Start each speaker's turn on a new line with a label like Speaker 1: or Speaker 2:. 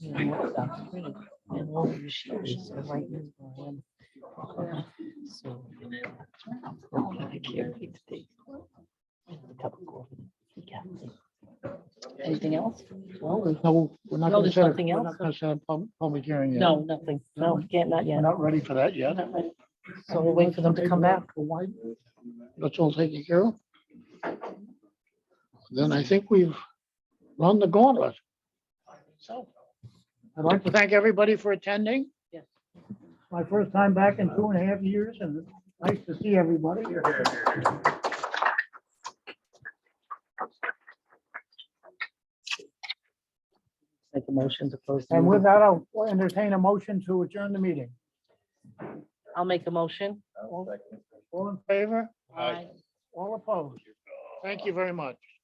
Speaker 1: you know, what's up free and all the machines are right in the lab. So, no, I can't wait to take a cup of coffee. Yeah. Anything else?
Speaker 2: Well, there's no, we're not
Speaker 1: No,
Speaker 2: going
Speaker 1: there's
Speaker 2: to set, a-
Speaker 1: nothing
Speaker 2: we're
Speaker 1: else?
Speaker 2: not going to set a pub- public hearing yet.
Speaker 1: No, nothing. No, we can't, not
Speaker 2: We're
Speaker 1: yet.
Speaker 2: not ready for that yet.
Speaker 1: Not ready. So we'll wait for them to come back.
Speaker 2: Well, why- That's all taken care of. Then I think we've run the gauntlet. So I'd like to thank everybody for attending.
Speaker 1: Yes.
Speaker 2: My first time back in two and a half years and it's nice to see everybody.
Speaker 1: Make a motion to close. the
Speaker 2: And with
Speaker 1: meeting.
Speaker 2: that, I'll entertain a motion to adjourn the meeting.
Speaker 1: I'll make a motion.
Speaker 2: All all in favor? All opposed? Thank you very much.